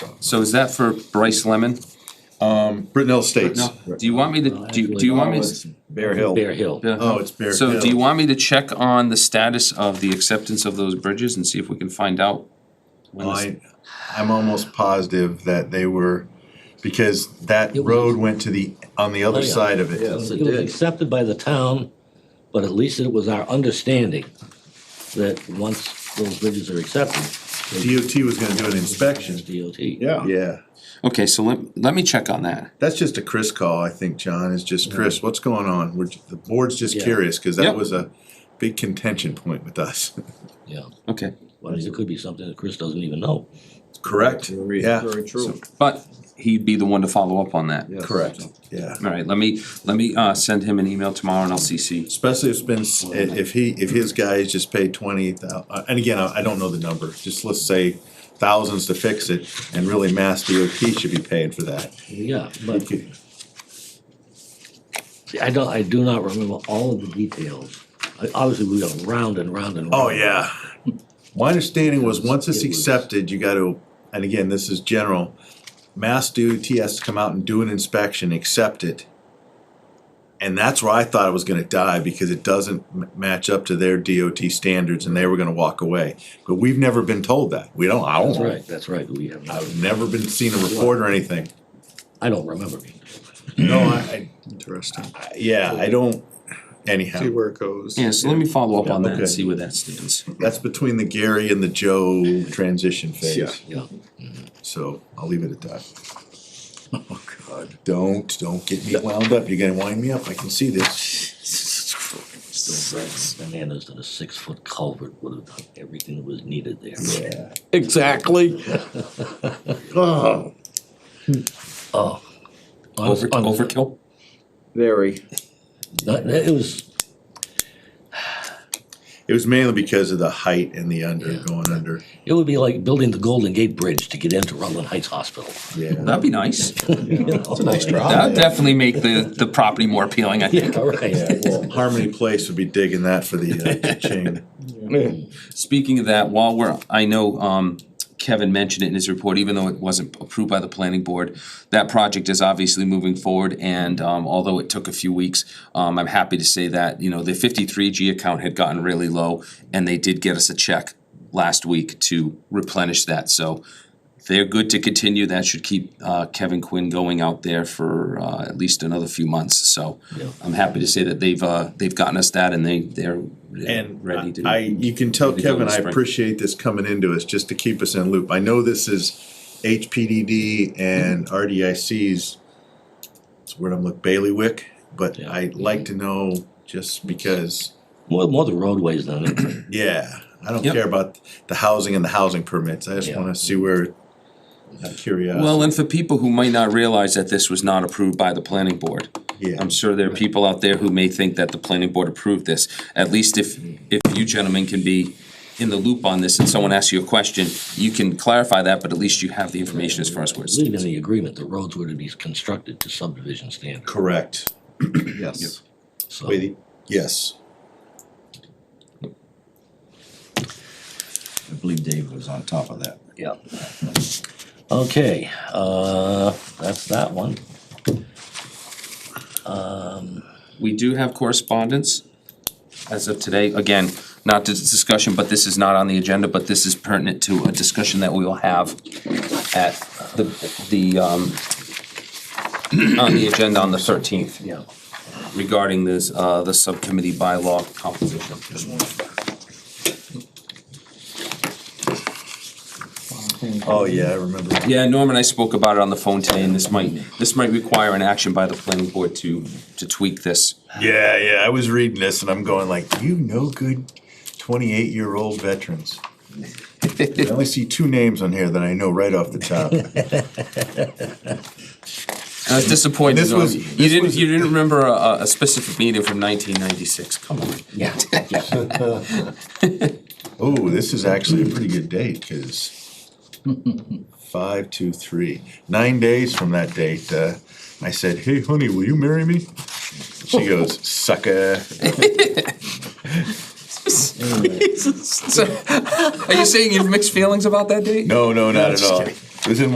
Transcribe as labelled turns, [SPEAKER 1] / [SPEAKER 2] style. [SPEAKER 1] So is that for Bryce Lemon?
[SPEAKER 2] Brittenell Estates.
[SPEAKER 1] No, do you want me to, do you, do you want me to?
[SPEAKER 2] Bear Hill.
[SPEAKER 3] Bear Hill.
[SPEAKER 1] Yeah.
[SPEAKER 2] Oh, it's Bear
[SPEAKER 1] So do you
[SPEAKER 2] Hill.
[SPEAKER 1] want me to check on the status of the acceptance of those bridges and see if we can find out? when this-
[SPEAKER 2] I, I'm almost positive that they were, because that
[SPEAKER 4] It was- Oh,
[SPEAKER 2] road went to the, on the other
[SPEAKER 4] yeah.
[SPEAKER 2] side of
[SPEAKER 4] It
[SPEAKER 2] it.
[SPEAKER 4] was accepted by the town, but at least it was our understanding that once those bridges are accepted,
[SPEAKER 2] DOT was gonna do an inspection.
[SPEAKER 4] it's DOT.
[SPEAKER 5] Yeah.
[SPEAKER 2] Yeah,
[SPEAKER 1] Okay, so let, let me check on that.
[SPEAKER 2] that's just a Chris call, I think, John, is just, Chris, what's going on? We're, ju- the board's just
[SPEAKER 4] Yeah.
[SPEAKER 2] curious, cause that
[SPEAKER 1] Yep.
[SPEAKER 2] was a big contention point with us.
[SPEAKER 4] Yeah,
[SPEAKER 1] Okay,
[SPEAKER 4] well, it could be something that Chris doesn't even know.
[SPEAKER 2] Correct, yeah,
[SPEAKER 5] Very true.
[SPEAKER 1] but he'd be the one to follow up on that.
[SPEAKER 5] Yes.
[SPEAKER 2] correct, yeah.
[SPEAKER 1] All right, let me, let me, uh, send him an email tomorrow and I'll CC.
[SPEAKER 2] Especially if it's been, s- i- if he, if his guys just paid twenty thou, uh, and again, I, I don't know the number, just let's say thousands to fix it, and really Mass DOT should be paying for that.
[SPEAKER 4] Yeah, but see, I don't, I do not remember all of the details. I- Obviously, we got round and round and round.
[SPEAKER 2] Oh, yeah. My understanding was, once it's
[SPEAKER 4] It was-
[SPEAKER 2] accepted, you gotta, and again, this is general, Mass DOT has to come out and do an inspection, accept it. And that's where I thought it was gonna die, because it doesn't m- match up to their DOT standards, and they were gonna walk away. But we've never been told that, we don't, I
[SPEAKER 4] That's
[SPEAKER 2] don't,
[SPEAKER 4] right, that's right, we have, not-
[SPEAKER 2] I've never been seen a report or anything.
[SPEAKER 4] I don't remember.
[SPEAKER 2] No, I,
[SPEAKER 5] Interesting.
[SPEAKER 2] I, yeah, I don't,
[SPEAKER 5] See
[SPEAKER 2] anyhow,
[SPEAKER 5] where it goes.
[SPEAKER 1] Yeah, so let me follow up on that
[SPEAKER 2] okay.
[SPEAKER 1] and see where that stands.
[SPEAKER 2] that's between the Gary and the Joe transition
[SPEAKER 5] Yeah.
[SPEAKER 2] phase.
[SPEAKER 4] Yeah,
[SPEAKER 2] So I'll leave it at that. Oh, God. Don't, don't get me wound up. You're gonna wind me up. I can see this.
[SPEAKER 4] bananas that a six-foot culvert would have done everything that was needed there.
[SPEAKER 2] Yeah.
[SPEAKER 5] Exactly.
[SPEAKER 2] Oh,
[SPEAKER 4] Oh.
[SPEAKER 1] Over, overkill?
[SPEAKER 5] Very.
[SPEAKER 4] That- that- It was,
[SPEAKER 2] it was mainly because of the height and the under,
[SPEAKER 4] Yeah.
[SPEAKER 2] going under.
[SPEAKER 4] it would be like building the Golden Gate Bridge to get into Rutland Heights Hospital.
[SPEAKER 2] Yeah.
[SPEAKER 1] That'd be nice.
[SPEAKER 4] It's a nice
[SPEAKER 2] drive.
[SPEAKER 1] That'd definitely make the, the property more appealing, I think.
[SPEAKER 4] Yeah, right.
[SPEAKER 2] Well, Harmony Place would be digging that for the uh, chain.
[SPEAKER 1] Speaking of that, while we're, I know, um, Kevin mentioned it in his report, even though it wasn't approved by the planning board, that project is obviously moving forward, and, um, although it took a few weeks, um, I'm happy to say that, you know, the fifty-three G account had gotten really low, and they did get us a check last week to replenish that, so they're good to continue, that should keep, uh, Kevin Quinn going out there for, uh, at least another few months, so
[SPEAKER 4] Yeah.
[SPEAKER 1] I'm happy to say that they've, uh, they've gotten us that, and they, they're
[SPEAKER 2] And
[SPEAKER 1] ready to.
[SPEAKER 2] I, you can tell
[SPEAKER 1] ready to go
[SPEAKER 2] Kevin,
[SPEAKER 1] in
[SPEAKER 2] I
[SPEAKER 1] spring.
[SPEAKER 2] appreciate this coming into us just to keep us in loop. I know this is HPDD and RDIC's, it's where I'm looking, bailiwick, but
[SPEAKER 4] Yeah.
[SPEAKER 2] I'd like to know just because,
[SPEAKER 4] More, more the roadways than anything.
[SPEAKER 2] yeah, I don't
[SPEAKER 1] Yep.
[SPEAKER 2] care about the housing and the housing permits. I just
[SPEAKER 4] Yeah.
[SPEAKER 2] wanna see where, I'm
[SPEAKER 1] Well,
[SPEAKER 2] curious.
[SPEAKER 1] and for people who might not realize that this was not approved by the planning board,
[SPEAKER 2] Yeah,
[SPEAKER 1] I'm sure there are people out there who may think that the planning board approved this. At least if, if you gentlemen can be in the loop on this and someone asks you a question, you can clarify that, but at least you have the information as far as where it's.
[SPEAKER 4] Leaving the agreement, the roads were to be constructed to subdivision standards.
[SPEAKER 2] correct.
[SPEAKER 5] Yes.
[SPEAKER 4] So,
[SPEAKER 2] Wait, yes.
[SPEAKER 6] I believe Dave was on top of that.
[SPEAKER 4] yeah. Okay, uh, that's that one.
[SPEAKER 1] We do have correspondence as of today. Again, not to discussion, but this is not on the agenda, but this is pertinent to a discussion that we will have at the, the, um, on the agenda on the thirteenth.
[SPEAKER 4] Yeah.
[SPEAKER 1] regarding this, uh, the subcommittee bylaw composition.
[SPEAKER 2] Oh, yeah, I remember.
[SPEAKER 1] Yeah, Norm and I spoke about it on the phone today, and this might, this might require an action by the planning board to, to tweak this.
[SPEAKER 2] Yeah, yeah, I was reading this and I'm going like, you no good twenty-eight year old veterans. I only see two names on here that I know right off the top.
[SPEAKER 1] I was disappointed,
[SPEAKER 2] This
[SPEAKER 1] Norm.
[SPEAKER 2] was-
[SPEAKER 1] You
[SPEAKER 2] this
[SPEAKER 1] didn't,
[SPEAKER 2] was-
[SPEAKER 1] you didn't remember a, a specific meeting from nineteen ninety-six, come on.
[SPEAKER 4] Yeah.
[SPEAKER 2] Oh, this is actually a pretty good date, cause five, two, three, nine days from that date, uh, I said, hey, honey, will you marry me? She goes, sucker.
[SPEAKER 1] So, Are you saying you have mixed feelings about that date?
[SPEAKER 2] No, no, not at all. It was in